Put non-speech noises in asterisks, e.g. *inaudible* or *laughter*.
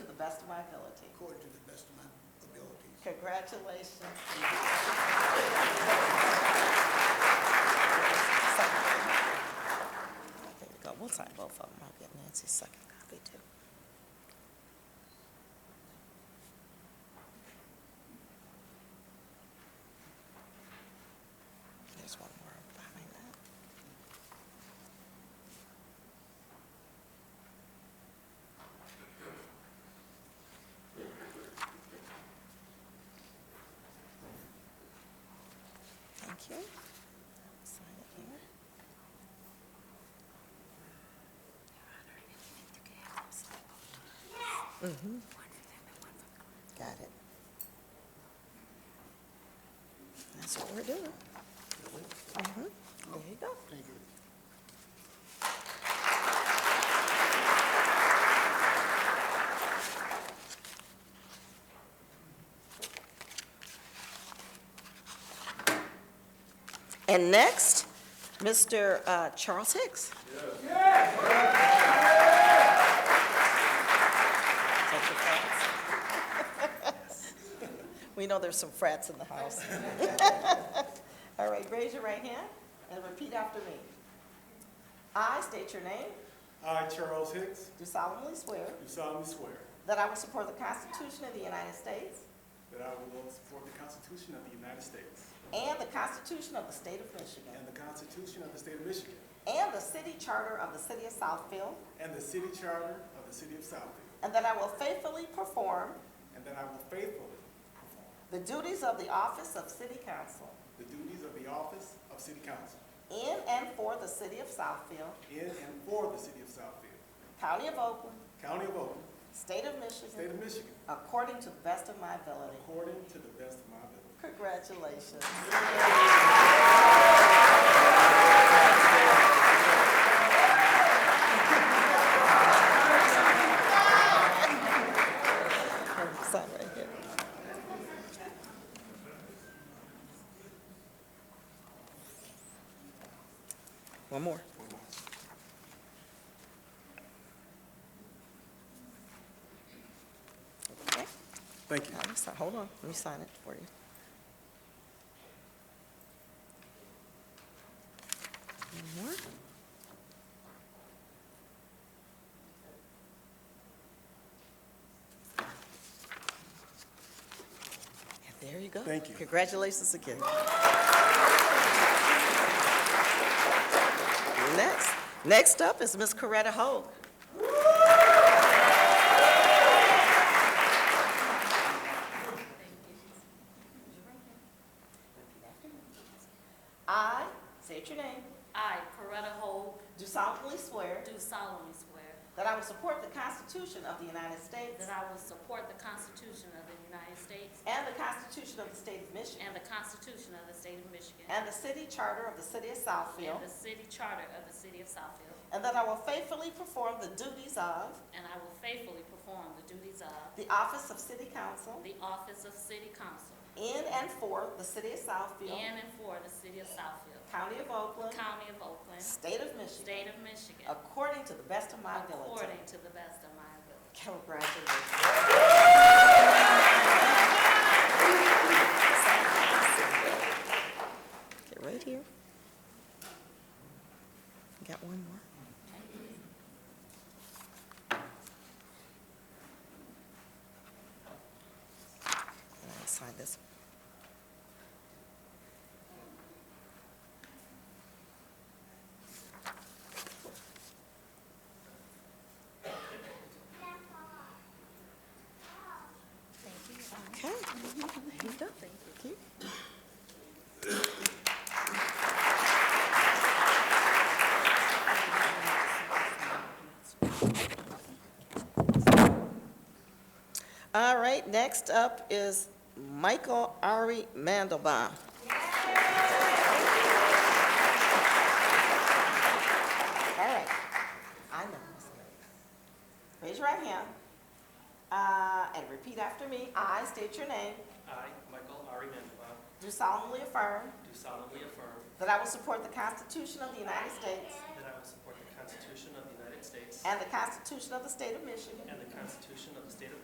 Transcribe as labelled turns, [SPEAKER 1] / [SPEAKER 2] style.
[SPEAKER 1] best of my ability.
[SPEAKER 2] according to the best of my abilities.
[SPEAKER 1] Congratulations. There we go. We'll sign both of them. I'll get Nancy's second copy too. There's one more behind that. Thank you. Sign it here. Mm-hmm. Got it. That's what we're doing. Mhm. There you go.
[SPEAKER 2] Thank you.
[SPEAKER 1] And next, Mr. uh, Charles Hicks. Take your frats. *laughs* We know there's some frats in the house. *laughs* All right, raise your right hand and repeat after me. I state your name,
[SPEAKER 3] I, Charles Hicks,
[SPEAKER 1] do solemnly swear
[SPEAKER 3] do solemnly swear
[SPEAKER 1] that I will support the Constitution of the United States
[SPEAKER 3] that I will support the Constitution of the United States
[SPEAKER 1] and the Constitution of the State of Michigan
[SPEAKER 3] and the Constitution of the State of Michigan
[SPEAKER 1] and the city charter of the city of Southfield,
[SPEAKER 3] and the City Charter of the City of Southfield,
[SPEAKER 1] and that I will faithfully perform
[SPEAKER 3] and that I will faithfully perform
[SPEAKER 1] the duties of the office of city council
[SPEAKER 3] the duties of the office of City Council
[SPEAKER 1] in and for the city of Southfield,
[SPEAKER 3] in and for the City of Southfield,
[SPEAKER 1] county of Oakland,
[SPEAKER 3] County of Oakland,
[SPEAKER 1] state of
[SPEAKER 3] State
[SPEAKER 1] Michigan,
[SPEAKER 3] of Michigan,
[SPEAKER 1] according to the best of my ability.
[SPEAKER 3] according to the best of my ability.
[SPEAKER 1] Congratulations. Sign right here. One more. Okay.
[SPEAKER 3] Thank you.
[SPEAKER 1] Now, let me sign- Hold on, let me sign it for you. One more. And there you go.
[SPEAKER 3] Thank you.
[SPEAKER 1] Congratulations again. Next, next up is Miss Coretta Hogue. I, state your name,
[SPEAKER 4] I, Coretta Hope,
[SPEAKER 1] do solemnly swear
[SPEAKER 4] do solemnly swear
[SPEAKER 1] that I will support the Constitution of the United States
[SPEAKER 4] that I will support the Constitution of the United States
[SPEAKER 1] and the Constitution of the State of Michigan
[SPEAKER 4] and the Constitution of the State of Michigan
[SPEAKER 1] and the City Charter of the City of Southfield,
[SPEAKER 4] and the City Charter of the City of Southfield,
[SPEAKER 1] and that I will faithfully perform the duties of
[SPEAKER 4] and I will faithfully perform the duties of
[SPEAKER 1] the Office of City Council
[SPEAKER 4] the Office of City Council
[SPEAKER 1] in and for the City of Southfield,
[SPEAKER 4] in and for the City of Southfield,
[SPEAKER 1] County of Oakland,
[SPEAKER 4] County of Oakland,
[SPEAKER 1] State of Michigan,
[SPEAKER 4] State of Michigan,
[SPEAKER 1] according to the best of my ability.
[SPEAKER 4] according to the best of my ability.
[SPEAKER 1] Congratulations. Get right here. Got one more. And I'll sign this. Okay. There you go. Thank you. All right, next up is Michael Ari Mandelbaum. All right, I know. this guy. Raise your right hand uh, and repeat after me. I state your name,
[SPEAKER 5] I, Michael Ari Mandelbaum,
[SPEAKER 1] do solemnly affirm
[SPEAKER 5] do solemnly affirm
[SPEAKER 1] that I will support the Constitution of the United States
[SPEAKER 5] that I will support the Constitution of the United States
[SPEAKER 1] and the Constitution of the State of Michigan,
[SPEAKER 5] and the Constitution of the State of